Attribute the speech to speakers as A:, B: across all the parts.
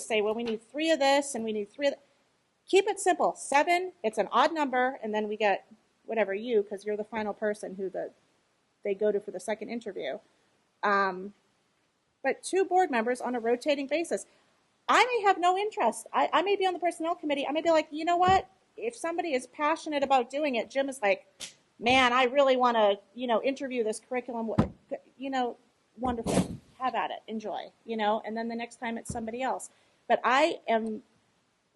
A: say, well, we need three of this and we need three of that. Keep it simple. Seven, it's an odd number, and then we get whatever you, because you're the final person who the they go to for the second interview. Um, but two board members on a rotating basis. I may have no interest. I, I may be on the personnel committee. I may be like, you know what? If somebody is passionate about doing it, Jim is like, man, I really want to, you know, interview this curriculum. You know, wonderful. Have at it. Enjoy. You know, and then the next time it's somebody else. But I am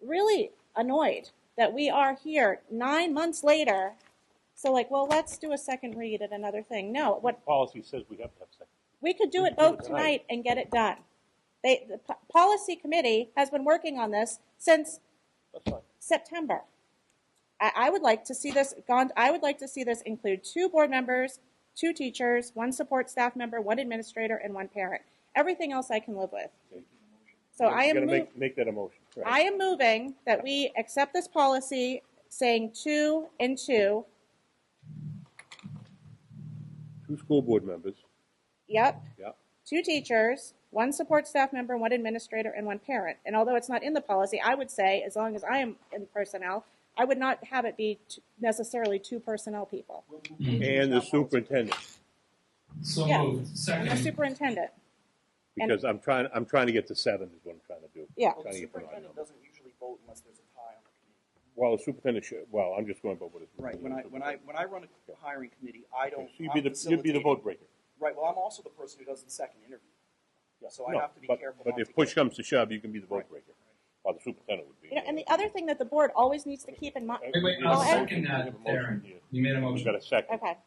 A: really annoyed that we are here nine months later. So like, well, let's do a second read at another thing. No, what
B: Policy says we have to have second.
A: we could do
B: We
A: it
B: could do it
A: both tonight
B: tonight.
A: and get it done. They, the p- policy committee has been working on this since
B: That's fine.
A: September. I, I would like to see this gone, I would like to see this include two board members, two teachers, one support staff member, one administrator, and one parent. Everything else I can live with. So I
B: You
A: am,
B: gotta
A: mov-
B: make, make that a motion. Right.
A: I am moving that we accept this policy saying two and two,
B: Two school board members,
A: yep,
B: yeah.
A: two teachers, one support staff member, one administrator, and one parent. And although it's not in the policy, I would say, as long as I am in personnel, I would not have it be t- necessarily two personnel people.
B: And the superintendent,
C: So
A: Yeah.
C: moved.
A: And the
C: Second.
A: superintendent, And-
B: because I'm trying, I'm trying to get to seven is what I'm trying to do.
A: yeah.
D: Well, the
B: Trying to get the right
D: superintendent
B: number.
D: doesn't usually vote unless there's a tie on the committee.
B: Well, the superintendent should, well, I'm just going by what is.
D: Right, when I, when I, when I run a hiring committee, I
B: So
D: don't.
B: you'd be the, you'd
D: I'm
B: be the
D: facilitating-
B: vote breaker.
D: Right, well, I'm also the person who does the second interview. So I
B: No,
D: have to be
B: but-
D: careful.
B: But
D: not
B: if
D: to
B: push
D: get-
B: comes to shove, you can be the vote
D: Right.
B: breaker, while the superintendent would be.
A: You know, and the other thing that the board always needs to keep in mind,
C: Wait, wait,
B: We have
C: I'll
B: a motion,
C: second
B: we have a
C: that,
B: motion
C: Darren.
B: here.
C: You made a
B: We've
C: motion.
B: got a second.
A: okay.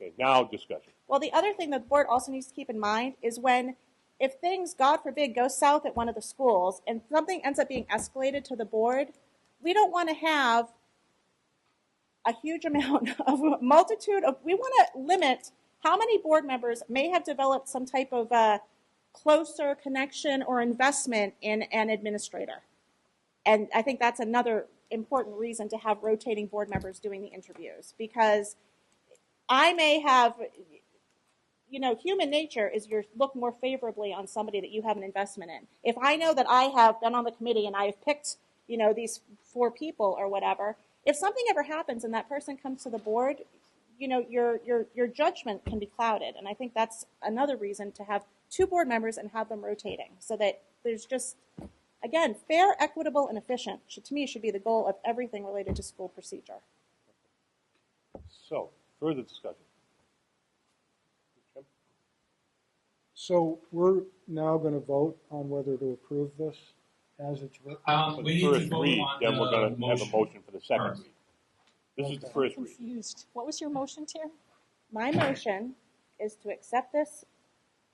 B: Okay, now discussion.
A: Well, the other thing that the board also needs to keep in mind is when, if things, God forbid, go south at one of the schools and something ends up being escalated to the board, we don't want to have a huge amount of a multitude of, we want to limit how many board members may have developed some type of a closer connection or investment in an administrator. And I think that's another important reason to have rotating board members doing the interviews because I may have, you know, human nature is you look more favorably on somebody that you have an investment in. If I know that I have been on the committee and I have picked, you know, these four people or whatever, if something ever happens and that person comes to the board, you know, your your your judgment can be clouded, and I think that's another reason to have two board members and have them rotating, so that there's just again fair, equitable, and efficient. Should, to me, should be the goal of everything related to school procedure.
B: So, further discussion.
E: So we're now going to vote on whether to approve this as it's written.
C: Um,
B: For
C: we
B: the
C: need to
B: first
C: vote
B: read,
C: on
B: then we're
C: the
B: gonna have a
C: motion.
B: motion for the second
C: first.
B: read. This is the
E: Okay.
B: first read.
F: confused. What was your motion, Terry?
A: My motion is to accept this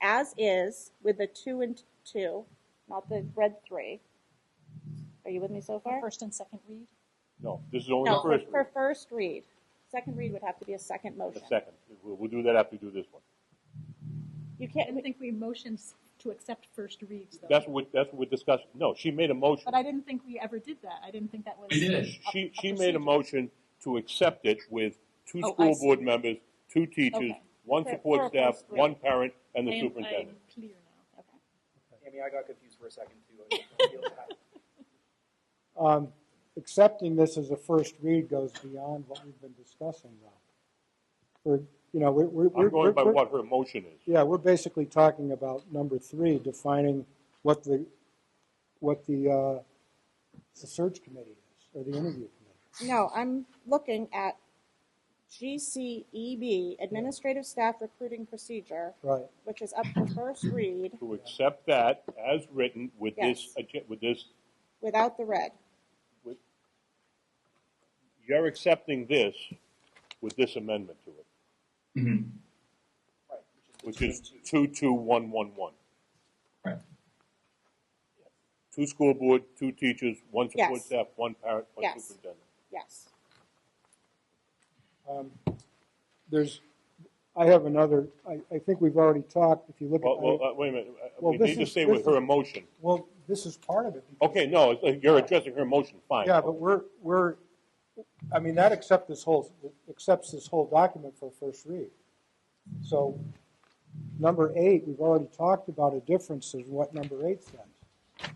A: as is with the two and two, not the red three. Are you with me so far?
F: First and second read?
B: No, this is only
A: No,
B: the
A: for,
B: first read.
A: for first read. Second read would have to be a second
B: The
A: motion.
B: second, we'll, we'll do that after we do this one.
A: You
F: I
A: can't,
F: don't think we motioned to accept first reads, though.
B: That's what, that's what we're discussing. No, she made a motion.
F: But I didn't think we ever did that. I didn't think that was.
C: We did.
B: She,
F: a
B: she made a
F: procedure.
B: motion to accept it with two
F: Oh, I
B: school
F: see.
B: board members, two teachers,
F: Okay.
B: one
A: For- for a
B: support staff,
A: first read.
B: one parent, and
F: I
B: the
F: am-
B: superintendent.
F: I'm clear now. Okay.
D: Tammy, I got confused for a second too. I didn't feel that.
E: Um, accepting this as a first read goes beyond what we've been discussing though. We're, you know, we're, we're.
B: I'm
E: we're-
B: going by
E: we're-
B: what her motion is.
E: Yeah, we're basically talking about number three, defining what the, what the, uh, the search committee is, or the interview committee.
A: no, I'm looking at GCEB, Administrative Staff Recruiting Procedure,
E: Right,
A: which is up for first read
B: To accept that as written with this,
A: Yes.
B: agen- with this,
A: without the red.
B: you're accepting this with this amendment to it, Mm-hmm.
C: Mhm.
D: Right, the
B: which
D: two
B: is
D: and two.
B: two, two, one, one, one.
C: Right.
B: Two school board, two teachers, one support
A: Yes.
B: staff, one parent, one
A: Yes.
B: superintendent.
A: Yes.
E: um, there's, I have another, I, I think we've already talked, if you look at.
B: Well, well, uh, wait a minute, Uh,
E: Well,
B: we
E: this
B: need to
E: is-
B: stay with
E: this
B: her
E: is-
B: emotion.
E: Well, this is part of it. because-
B: Okay, no, it's like you're addressing her emotion, fine.
E: Yeah, but we're, we're, I mean, that accept this whole, accepts this whole document for first read. So, number eight, we've already talked about a difference in what number eight says.